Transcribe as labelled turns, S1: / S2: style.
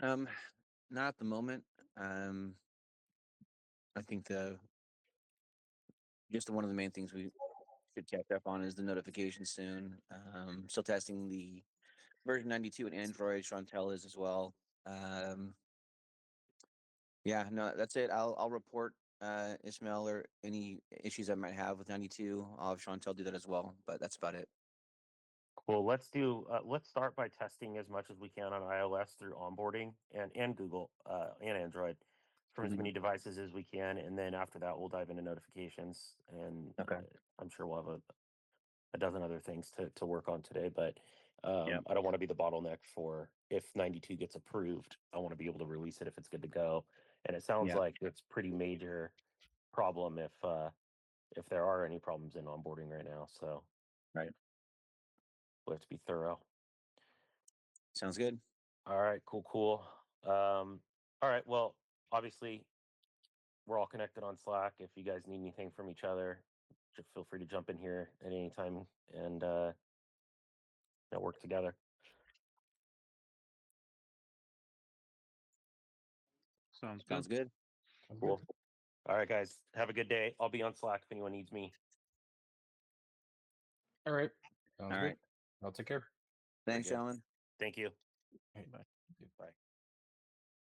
S1: Um, not at the moment. Um, I think the just one of the main things we should catch up on is the notification soon. Um, still testing the version 92 and Android. Chantel is as well. Um, yeah, no, that's it. I'll I'll report uh, Ismail or any issues I might have with 92. I'll have Chantel do that as well. But that's about it.
S2: Cool. Let's do. Uh, let's start by testing as much as we can on iOS through onboarding and and Google uh, and Android from as
S1: Mhm.
S2: many devices as we can, and then after that, we'll dive into notifications. And
S1: Okay.
S2: uh, I'm sure we'll have a, a dozen other things to to work on today. But um,
S1: Yep.
S2: I don't want to be the bottleneck for if 92 gets approved. I want to be able to release it if it's good to go. And it sounds
S1: Yeah.
S2: like it's pretty major problem if uh, if there are any problems in onboarding right now. So
S1: Right.
S2: we have to be thorough.
S1: Sounds good.
S2: All right, cool, cool. Um, all right, well, obviously, we're all connected on Slack. If you guys need anything from each other, ju- feel free to jump in here at any time and uh, you know, work together.
S3: Sounds good.
S1: Sounds good.
S2: Cool. All right, guys, have a good day. I'll be on Slack if anyone needs me.
S4: All right. Sounds
S1: All
S4: good.
S1: right.
S4: I'll take care.
S1: Thanks,
S2: good.
S1: gentlemen.
S2: Thank you.
S4: All right, bye.
S2: Bye.